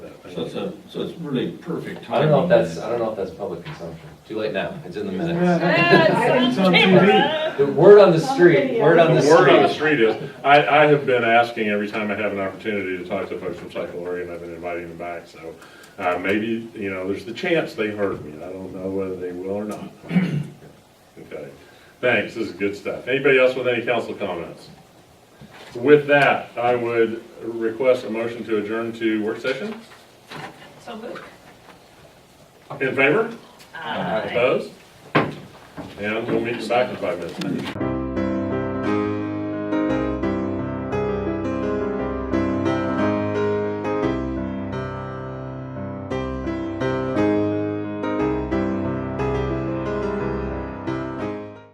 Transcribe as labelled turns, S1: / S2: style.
S1: So it's a, so it's really perfect timing.
S2: I don't know if that's, I don't know if that's public consumption. Too late now, it's in the minutes.
S3: It's on TV.
S2: The word on the street, word on the
S4: The word on the
S2: street.
S4: street is, I, I have been asking every time I have an opportunity to talk to folks from Cycle Orient, I've been inviting them back, so, uh, maybe, you know, there's the chance they heard me, I don't know whether they will or not. Okay, thanks, this is good stuff. Anybody else with any council comments? With that, I would request a motion to adjourn to work session,
S3: So moved.
S4: in favor,
S2: Aye.
S4: opposed? And we'll meet you back in five minutes.